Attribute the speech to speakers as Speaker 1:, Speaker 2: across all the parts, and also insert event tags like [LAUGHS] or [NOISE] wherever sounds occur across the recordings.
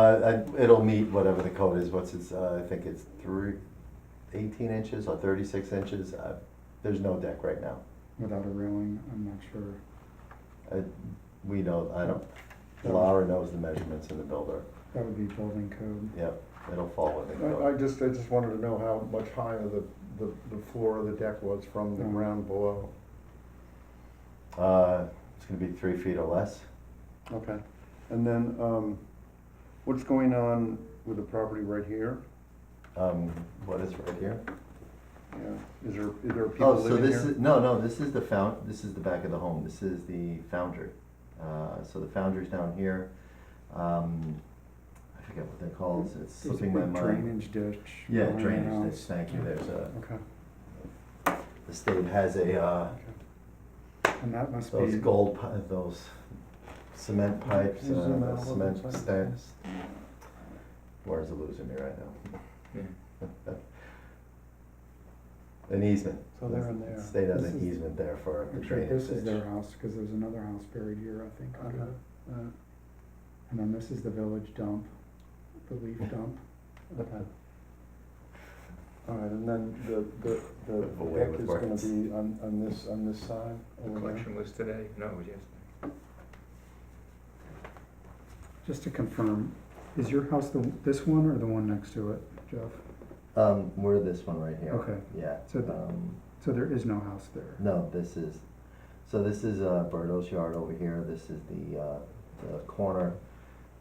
Speaker 1: Uh, I- it'll meet whatever the code is, what's its, uh, I think it's three, eighteen inches or thirty-six inches. Uh, There's no deck right now.
Speaker 2: without a railing, I'm not sure.
Speaker 1: Uh, We know, I don't,
Speaker 2: That would-
Speaker 1: Laura knows the measurements in the builder.
Speaker 2: That would be building code.
Speaker 1: Yep, it'll fall within
Speaker 3: I, I
Speaker 1: code.
Speaker 3: just, I just wanted to know how much higher the, the, the floor of the deck was from the
Speaker 2: Mm.
Speaker 3: ground below.
Speaker 1: Uh, it's gonna be three feet or less.
Speaker 3: Okay, and then, um, what's going on with the property right here?
Speaker 1: Um, what is right here?
Speaker 3: Yeah, is there, is there people
Speaker 1: Oh, so
Speaker 3: living
Speaker 1: this
Speaker 3: here?
Speaker 1: is, no, no, this is the found, this is the back of the home, this is the foundry. Uh, so the foundry's down here, um, I forget what they're called, it's
Speaker 2: There's a
Speaker 1: slipping my
Speaker 2: big
Speaker 1: mind.
Speaker 2: drainage ditch.
Speaker 1: Yeah,
Speaker 2: behind the
Speaker 1: drainage, ditch,
Speaker 2: house.
Speaker 1: thank you, there's a,
Speaker 3: Okay,
Speaker 1: the state has a, uh,
Speaker 2: And that must be.
Speaker 1: those gold, pi- those cement pipes,
Speaker 3: Can you zoom out a
Speaker 1: uh,
Speaker 3: little
Speaker 1: cement
Speaker 3: bit?
Speaker 1: stacks. Laura's losing me right now. An easement.
Speaker 3: So they're in there.
Speaker 1: The State has
Speaker 2: This
Speaker 1: an
Speaker 2: is-
Speaker 1: easement there for the
Speaker 2: I'm sure
Speaker 1: drainage
Speaker 2: this
Speaker 1: ditch.
Speaker 2: is their house, because there's another house buried here, I think. under
Speaker 3: Okay.
Speaker 2: it. And then this is the village dump, the
Speaker 1: [LAUGHS]
Speaker 2: leaf dump.
Speaker 3: okay. All right, and then the, the, the
Speaker 1: Away
Speaker 3: deck
Speaker 1: with
Speaker 3: is gonna
Speaker 1: words.
Speaker 3: be on, on this, on this side
Speaker 4: The
Speaker 3: over there?
Speaker 4: collection was today? No, it was yesterday.
Speaker 2: Just to confirm, is your house the, this one or the one next to it, Jeff?
Speaker 1: Um, we're this one right here.
Speaker 2: Okay.
Speaker 1: Yeah.
Speaker 2: So th-
Speaker 1: um,
Speaker 2: So there is no house there?
Speaker 1: no, this is, so this is uh, Berto's yard over here. This is the, uh, the corner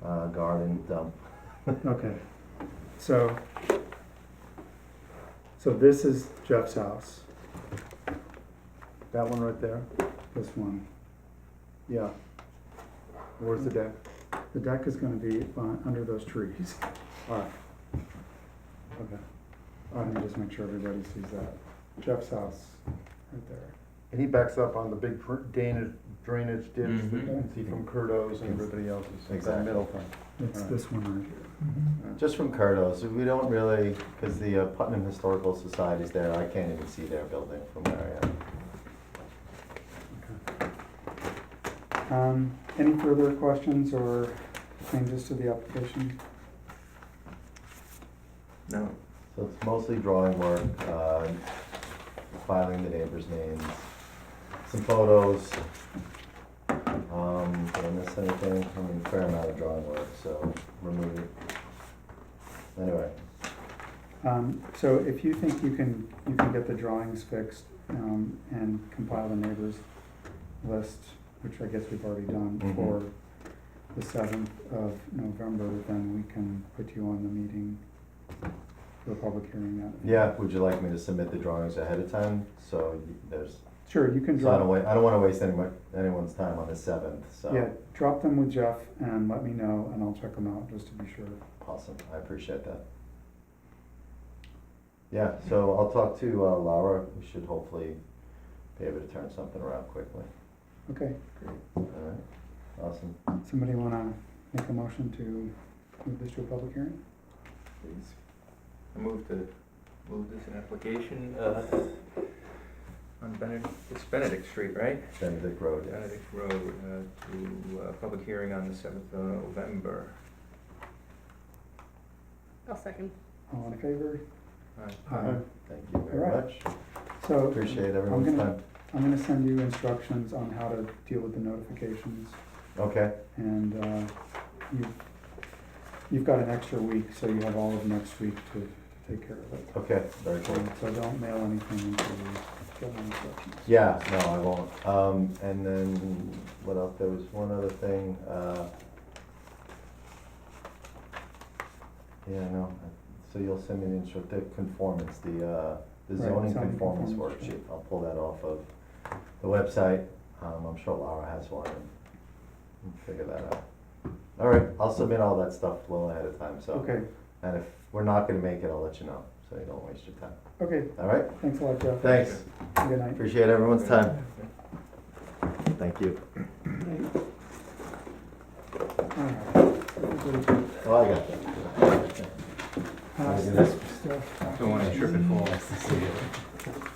Speaker 1: uh, garden dump.
Speaker 2: Okay, so, so this is Jeff's house,
Speaker 3: That one right there?
Speaker 2: this one.
Speaker 3: Yeah. Where's the deck?
Speaker 2: The deck is gonna be uh, under those trees. [LAUGHS]
Speaker 3: All right. Okay.
Speaker 2: Uh, Let me just make sure everybody sees that. Jeff's house, right there.
Speaker 3: And he backs up on the big pr- drainage, drainage ditch that you can see
Speaker 1: Mhm.
Speaker 3: from Curdo's and everybody else's, that
Speaker 1: Exactly.
Speaker 3: middle thing.
Speaker 2: It's
Speaker 3: Alright.
Speaker 2: this one right here.
Speaker 1: Just from Curdo's, we don't really, because the uh, Putnam Historical Society's there, I can't even see their building from where I am.
Speaker 2: Um, Any further questions or changes to the application?
Speaker 4: No.
Speaker 1: So it's mostly drawing work, uh, filing the neighbors' names, some photos. Um, did I miss anything? I mean, fair amount of drawing work, so remove it. Anyway,
Speaker 2: Um, So if you think you can, you can get the drawings fixed um, and compile the neighbors list, which I guess we've already done,
Speaker 1: Mhm.
Speaker 2: for the seventh of November, then we can put you on the meeting for a public hearing that.
Speaker 1: yeah, would you like me to submit the drawings ahead of time? So y- there's,
Speaker 2: Sure, you can
Speaker 1: so I
Speaker 2: draw.
Speaker 1: don't wa, I don't wanna waste anyone, anyone's time on the seventh,
Speaker 2: Yeah,
Speaker 1: so.
Speaker 2: drop them with Jeff and let me know, and I'll check them out just to be sure.
Speaker 1: Awesome, I appreciate that. Yeah, so I'll talk to uh, Laura, we should hopefully be able to turn something around quickly.
Speaker 2: Okay,
Speaker 1: All right, awesome.
Speaker 2: somebody wanna make a motion to move this to a public hearing?
Speaker 4: Please. I move to, move this in application, uh, on Benedict, it's Benedict Street, right?
Speaker 1: Benedict Road, yes.
Speaker 4: Benedict Road, uh, to, uh, public hearing on the seventh of November.
Speaker 5: I'll second.
Speaker 2: All in favor?
Speaker 4: Aye.
Speaker 2: Aye.
Speaker 1: Thank you very
Speaker 2: All
Speaker 1: much.
Speaker 2: So.
Speaker 1: Appreciate everyone's
Speaker 2: gonna-
Speaker 1: time.
Speaker 2: I'm gonna send you instructions on how to deal with the notifications,
Speaker 1: Okay,
Speaker 2: and uh, you've, you've got an extra week, so you have all of next week to take care of it.
Speaker 1: okay, very cool.
Speaker 2: So- So don't mail anything until you get my instructions.
Speaker 1: Yeah, no, I won't. Um, and then, what else? There was one other thing, uh. Yeah, no, I- so you'll send me the instru, the conformance, the, uh, the
Speaker 2: Right,
Speaker 1: zoning
Speaker 2: zoning
Speaker 1: conformance
Speaker 2: conformance,
Speaker 1: worksheet. I'll pull that off of the website. Um, I'm sure Laura has one and we'll figure that out. All right, I'll submit all that stuff well ahead of time, so.
Speaker 2: Okay,
Speaker 1: And if we're not gonna make it, I'll let you know, so you don't waste your time.
Speaker 2: okay,
Speaker 1: All right?
Speaker 2: thanks a lot, Jeff.
Speaker 1: Thanks.
Speaker 2: Good night.
Speaker 1: Appreciate everyone's time. Thank you.
Speaker 2: Alright.
Speaker 1: Oh, I got that.
Speaker 2: Pass
Speaker 1: Have a good
Speaker 2: this stuff.
Speaker 4: Don't wanna trip and fall.